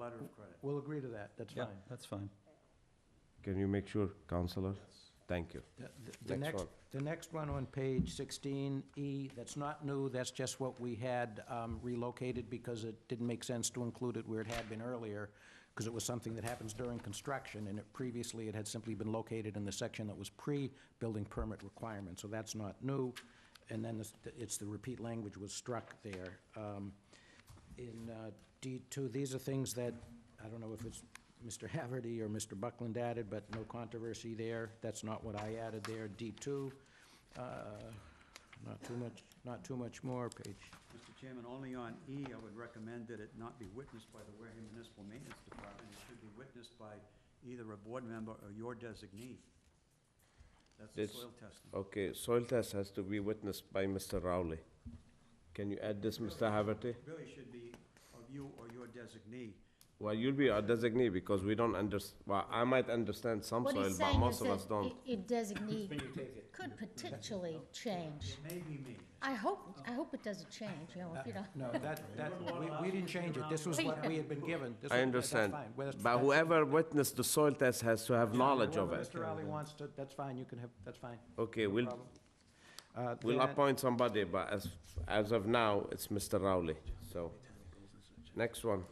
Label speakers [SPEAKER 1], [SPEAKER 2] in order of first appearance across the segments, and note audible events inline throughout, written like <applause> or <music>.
[SPEAKER 1] letter of credit.
[SPEAKER 2] We'll agree to that, that's
[SPEAKER 3] Yeah,
[SPEAKER 2] fine.
[SPEAKER 3] that's fine.
[SPEAKER 4] Can you make sure, Counselor? Thank you.
[SPEAKER 2] The- the- The
[SPEAKER 4] Next
[SPEAKER 2] next,
[SPEAKER 4] one.
[SPEAKER 2] the next one on page 16E, that's not new, that's just what we had um, relocated because it didn't make sense to include it where it had been earlier, because it was something that happens during construction, and it previously, it had simply been located in the section that was pre-building permit requirement, so that's not new. And then it's- it's, the repeat language was struck there. Um, in uh, D2, these are things that, I don't know if it's Mr. Haverty or Mr. Buckland added, but no controversy there. That's not what I added there. D2, uh, not too much, not too much more, page.
[SPEAKER 1] Mr. Chairman, only on E, I would recommend that it not be witnessed by the Wareham Municipal Maintenance Department. It should be witnessed by either a board member or your designee. That's the
[SPEAKER 4] That's-
[SPEAKER 1] soil testing.
[SPEAKER 4] Okay, soil test has to be witnessed by Mr. Rowley. Can you add this, Mr. Haverty?
[SPEAKER 1] It Really should be of you or your designee.
[SPEAKER 4] Well, you'll be our designee because we don't under, well, I might understand some
[SPEAKER 5] What
[SPEAKER 4] soil,
[SPEAKER 5] he's
[SPEAKER 4] but
[SPEAKER 5] saying is
[SPEAKER 4] most of us
[SPEAKER 5] that
[SPEAKER 4] don't.
[SPEAKER 5] it- it designate could potentially change.
[SPEAKER 1] It may be me.
[SPEAKER 5] I hope, I hope it doesn't change, you know, if you don't.
[SPEAKER 2] No, that, that, we- we didn't change it. This was what we had been given. This was-
[SPEAKER 4] I
[SPEAKER 2] that's
[SPEAKER 4] understand,
[SPEAKER 2] fine. Well, that's-
[SPEAKER 4] but
[SPEAKER 2] that's-
[SPEAKER 4] whoever witnessed the soil test has to have knowledge of
[SPEAKER 2] whoever
[SPEAKER 4] it.
[SPEAKER 2] Mr. Rowley wants to, that's fine, you can have, that's fine.
[SPEAKER 4] Okay, we'll,
[SPEAKER 2] Uh,
[SPEAKER 4] we'll
[SPEAKER 2] then-
[SPEAKER 4] appoint somebody, but as, as of now, it's Mr. Rowley, so. Next one,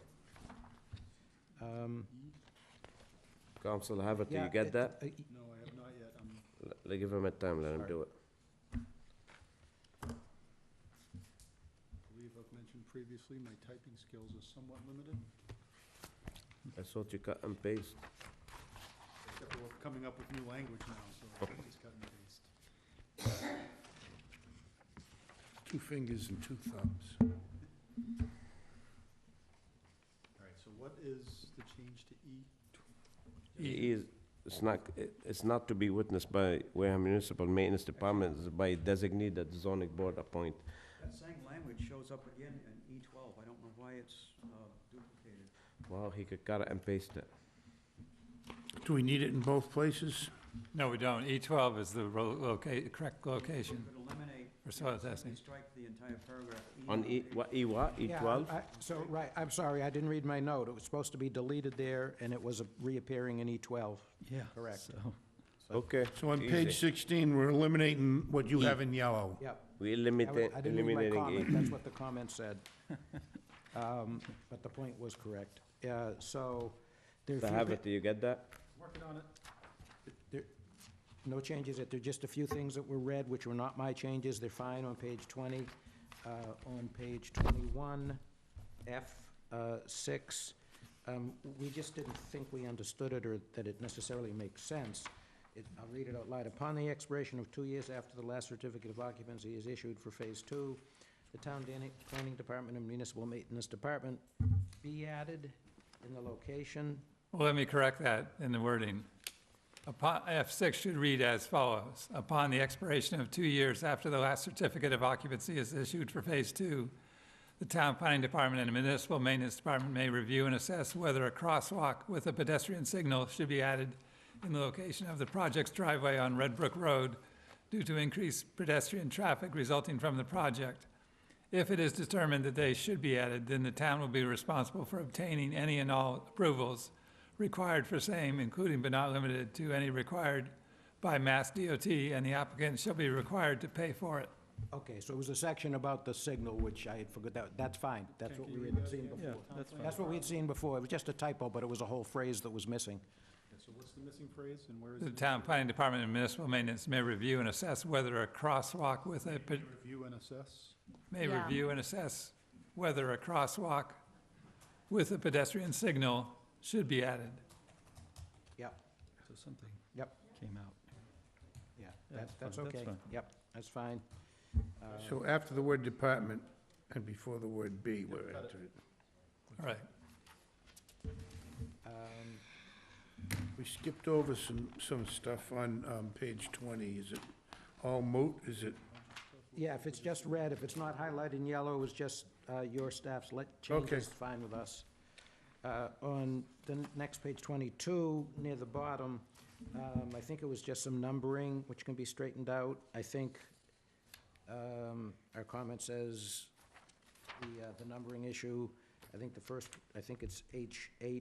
[SPEAKER 2] um,
[SPEAKER 4] Council Haverty,
[SPEAKER 2] yeah,
[SPEAKER 4] you get
[SPEAKER 2] it-
[SPEAKER 4] that?
[SPEAKER 6] No, I
[SPEAKER 2] uh,
[SPEAKER 6] have not yet. Um, I'm
[SPEAKER 4] L- let- Give him a time, let him
[SPEAKER 2] Sorry.
[SPEAKER 4] do it.
[SPEAKER 6] believe I've mentioned previously, my typing skills are somewhat limited,
[SPEAKER 4] I thought you cut and paste.
[SPEAKER 6] except for we're coming up with new language now, so I just cut and paste.
[SPEAKER 7] Two fingers and two thumbs.
[SPEAKER 6] All right, so what is the change to E?
[SPEAKER 4] He is, it's not, it- it's not to be witnessed by Wareham Municipal Maintenance Department, it's by designee that the zoning board appoint.
[SPEAKER 1] That same language shows up again in E twelve. I don't know why it's uh, duplicated.
[SPEAKER 4] Wow, he could cut it and paste it.
[SPEAKER 7] Do we need it in both places?
[SPEAKER 3] No, we don't. E12 is the ro- loca- correct
[SPEAKER 1] We
[SPEAKER 3] location
[SPEAKER 1] could eliminate,
[SPEAKER 3] for soil
[SPEAKER 1] simply
[SPEAKER 3] testing.
[SPEAKER 1] strike the entire paragraph.
[SPEAKER 4] On E, what, E what, E
[SPEAKER 2] Yeah,
[SPEAKER 4] twelve?
[SPEAKER 2] I- So, right, I'm sorry, I didn't read my note. It was supposed to be deleted there, and it was reappearing in E E12.
[SPEAKER 3] Yeah.
[SPEAKER 2] Correct.
[SPEAKER 3] so-
[SPEAKER 4] Okay.
[SPEAKER 7] So on
[SPEAKER 4] easy.
[SPEAKER 7] page 16, we're eliminating what
[SPEAKER 6] E.
[SPEAKER 7] you have in yellow.
[SPEAKER 2] Yep.
[SPEAKER 4] We
[SPEAKER 2] I was-
[SPEAKER 4] eliminate,
[SPEAKER 2] I didn't read my comment,
[SPEAKER 4] eliminating E.
[SPEAKER 2] that's what the comment
[SPEAKER 4] <laughs>
[SPEAKER 2] said. Um, But the point was correct. Uh, So there are
[SPEAKER 4] So
[SPEAKER 2] a
[SPEAKER 4] have
[SPEAKER 2] few,
[SPEAKER 4] it, do you get that?
[SPEAKER 6] Working on it.
[SPEAKER 2] thi- no changes, there are just a few things that were read, which were not my changes, they're fine on page 20. Uh, On page 21, F6, Um, we just didn't think we understood it or that it necessarily makes sense. It- I'll read it out loud. Upon the expiration of two years after the last certificate of occupancy is issued for Phase 2, the Town Dan- Planning Department and Municipal Maintenance Department be added in the location.
[SPEAKER 3] Well, let me correct that in the wording. Upon, F6 should read as follows. Upon the expiration of two years after the last certificate of occupancy is issued for Phase 2, the Town Planning Department and the Municipal Maintenance Department may review and assess whether a crosswalk with a pedestrian signal should be added in the location of the project's driveway on Red Brook Road due to increased pedestrian traffic resulting from the project. If it is determined that they should be added, then the town will be responsible for obtaining any and all approvals required for same, including but not limited to any required by Mass DOT, and the applicant shall be required to pay for it.
[SPEAKER 2] Okay, so it was a section about the signal, which I had forgot, that, that's fine, that's what we had seen before.
[SPEAKER 3] that's
[SPEAKER 2] That's what we had seen before, it was just a typo, but it was a whole phrase that was missing.
[SPEAKER 6] Okay, so what's the missing phrase and where is
[SPEAKER 3] The
[SPEAKER 6] it?
[SPEAKER 3] town planning department and municipal maintenance may review and assess whether a crosswalk with a, pe-
[SPEAKER 6] Review and assess.
[SPEAKER 3] may
[SPEAKER 5] Yeah.
[SPEAKER 3] review and assess whether a crosswalk with a pedestrian signal should be added.
[SPEAKER 2] Yep,
[SPEAKER 3] So something
[SPEAKER 2] Yep.
[SPEAKER 3] came out.
[SPEAKER 2] yeah,
[SPEAKER 3] Yeah,
[SPEAKER 2] that,
[SPEAKER 3] that's
[SPEAKER 2] that's
[SPEAKER 3] fine, that's
[SPEAKER 2] okay,
[SPEAKER 3] fine.
[SPEAKER 2] yep, that's fine. Uh,
[SPEAKER 7] So after the word department and before the word B, we're
[SPEAKER 6] got it.
[SPEAKER 7] entering.
[SPEAKER 3] All right.
[SPEAKER 2] um,
[SPEAKER 7] We skipped over some, some stuff on um, page 20. Is it all moot? Is it,
[SPEAKER 2] Yeah, if it's just red, if it's not highlighted in yellow, it's just uh, your staff's let, change
[SPEAKER 7] Okay.
[SPEAKER 2] is fine with us. Uh, On the n- next page 22, near the bottom, um, I think it was just some numbering, which can be straightened out. I think um, our comment says the, uh, the numbering issue, I think the first, I think it's H eight